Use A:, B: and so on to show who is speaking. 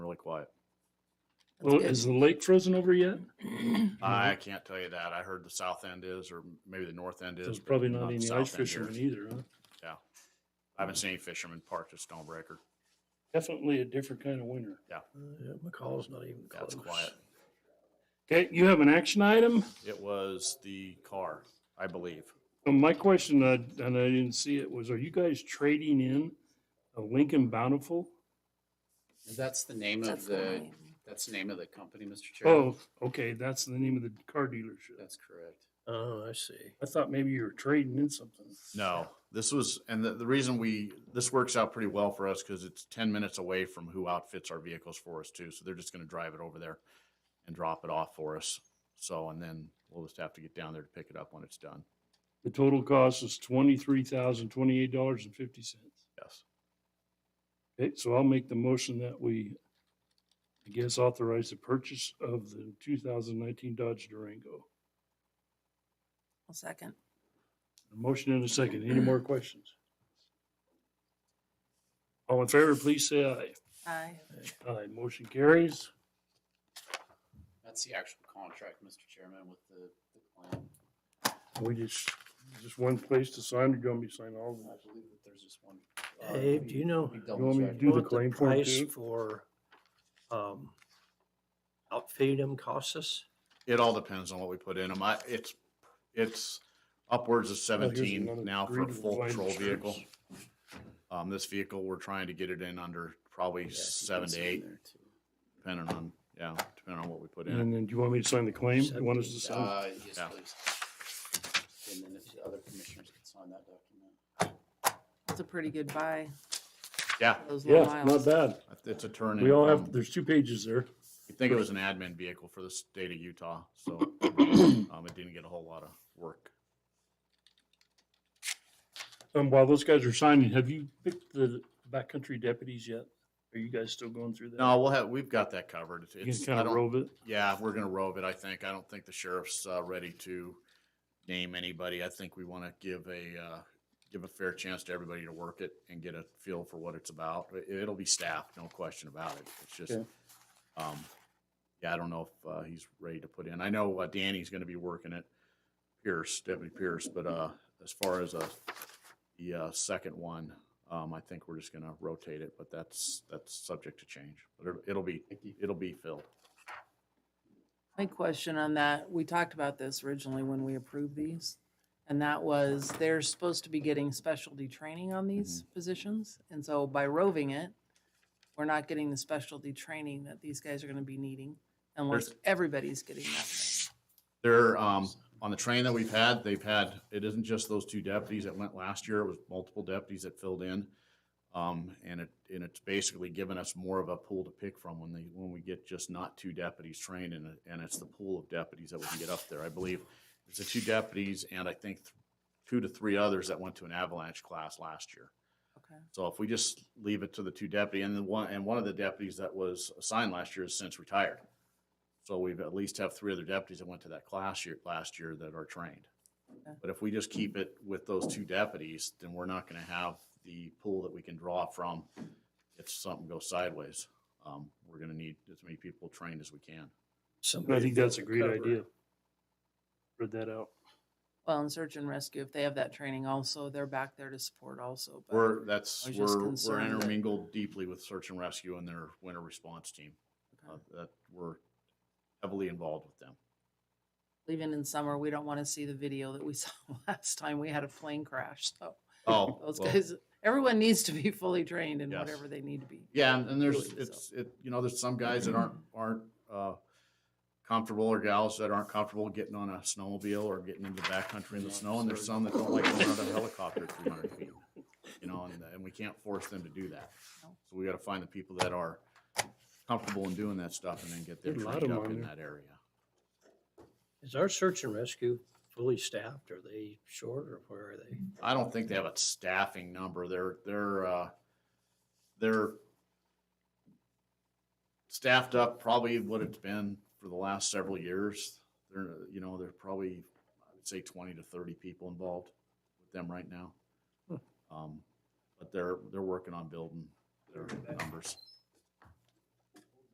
A: quiet.
B: Well, is the lake frozen over yet?
A: I
B: Mm-hmm.
A: can't tell you that. I heard the south end is, or maybe the north end is.
B: So There's
A: but
B: probably not
A: the
B: any
A: south
B: ice
A: end here.
B: fishermen either, huh?
A: I haven't seen any fishermen parked at Stonebreaker.
B: Definitely a different kind of winter.
C: Yeah, McCall's not even
A: Yeah, it's
C: close.
A: quiet.
B: Okay, you have an action item?
A: It was the car, I believe.
B: Uh, My question, uh, and I didn't see it, was are you guys trading in a Lincoln Bountiful?
D: That's the name of
E: That's
D: the,
E: fine.
D: that's the name of the company, Mr. Chair.
B: Oh, okay, that's the name of the car dealership.
D: That's correct.
C: Oh, I see.
B: I thought maybe you were trading in something.
A: No, this was, and the, the reason we, this works out pretty well for us because it's ten minutes away from who outfits our vehicles for us too. So they're just gonna drive it over there and drop it off for us. So, and then we'll just have to get down there to pick it up when it's done.
B: The total cost is twenty-three thousand, twenty-eight dollars and fifty cents.
A: Yes.
B: Okay, so I'll make the motion that we, I guess, authorize the purchase of the two thousand nineteen Dodge Durango.
E: I'll second.
B: A motion and a second. Any more questions? All in favor, please say aye.
E: Aye.
B: Aye, motion carries.
D: That's the actual contract, Mr. Chairman, with the, the plan.
B: We just, just one place to sign, or do you want me to sign all of
D: I
B: them?
D: believe that there's just one. uh,
C: Dave, do you know
D: we
B: You want me to
D: double-checked.
B: do the
C: what the
B: claim form
C: price
B: too?
C: for um, outfitting them costs us?
A: It all depends on what we put in them. I, it's, it's upwards of
B: Oh, here's
A: seventeen
B: another
A: now for a
B: greeting
A: full
B: line
A: patrol
B: insurance.
A: vehicle. Um, this vehicle, we're trying to get it in under probably
D: Yeah, I think
A: seven
D: that's
A: to
D: in
A: eight,
D: there, too.
A: depending on, yeah, depending on what we put in.
B: And then do you want me to sign the claim? You want us to sign?
D: Uh, yes,
A: Yeah.
D: please. And then if the other commissioners could sign that document.
E: That's a pretty good buy.
A: Yeah,
E: for Those little
B: Yeah, not
E: miles.
B: bad.
A: it's a turn. in
B: We all have,
A: from-
B: there's two pages there.
A: You'd think it was an admin vehicle for the state of Utah, so um, it didn't get a whole lot of work.
B: Um, while those guys are signing, have you picked the backcountry deputies yet? Are you guys still going through that?
A: No, we'll have we've got that covered. It's-
B: You
A: It's,
B: can
A: I
B: kind of
A: don't-
B: rove it.
A: Yeah, we're gonna robe it. I think. I don't think the sheriff's uh, ready to name anybody. I think we want to give a uh, give a fair chance to everybody to work it and get a feel for what it's about. It, it'll be staffed, no question about it. It's just.
B: Okay.
A: Um, yeah, I don't know if uh, he's ready to put in. I know uh, Danny's going to be working it, Pierce, Deputy Pierce, but uh, as far as uh, the uh, second one, um, I think we're just going to rotate it, but that's that's subject to change. But it'll, it'll be
D: Thank you.
A: it'll be filled.
E: My question on that, we talked about this originally when we approved these. And that was, they're supposed to be getting specialty training on these
A: Mm-hmm.
E: positions. And so by roving it, we're not getting the specialty training that these guys are gonna be needing unless
A: There's-
E: everybody's getting that thing.
A: They're um, on the train that we've had. They've had it isn't just those two deputies that went last year. It was multiple deputies that filled in, um, and it and it's basically given us more of a pool to pick from when they when we get just not two deputies trained, and it- and it's the pool of deputies that we can get up there. I believe it's the two deputies and I think th- two to three others that went to an avalanche class last year.
E: Okay.
A: So if we just leave it to the two deputy and the one, and one of the deputies that was assigned last year is since retired. So we've at least have three other deputies that went to that class year, last year that are trained.
E: Okay.
A: But if we just keep it with those two deputies, then we're not gonna have the pool that we can draw from if something goes sideways. Um, we're gonna need as many people trained as we can.
B: I
C: Somebody
B: think that's a
C: to
B: great
C: cover.
B: idea. Read that out.
E: Well, in search and rescue, if they have that training also, they're back there to support also. but-
A: We're, that's,
E: I was just
A: we're, we're
E: concerned that-
A: intermingled deeply with search and rescue and their winter response team.
E: Okay.
A: Uh, That we're heavily involved with them.
E: Even in summer, we don't wanna see the video that we saw last time we had a plane crash, so.
A: Oh,
E: Those
A: well,
E: guys, everyone needs to be fully trained in
A: Yes.
E: whatever they need to be.
A: Yeah, and- and there's,
E: Really, so.
A: it's, it, you know, there's some guys that aren't, aren't, uh, comfortable or gals that aren't comfortable getting on a snowmobile or getting into the backcountry in the snow, and there's some that don't like going on a helicopter at three hundred feet. You know, and, and we can't force them to do that.
E: No.
A: So we gotta find the people that are comfortable in doing that stuff and then get them
B: There's a lot of
A: trained
B: them
A: up
B: on
A: in
B: there.
A: that area.
C: Is our search and rescue fully staffed? Are they short or where are they?
A: I don't think they have a staffing number. They're, they're, uh, they're staffed up probably what it's been for the last several years. They're, you know, they're probably, I would say twenty to thirty people involved with them right now.
C: Hmm.
A: Um, but they're, they're working on building their numbers.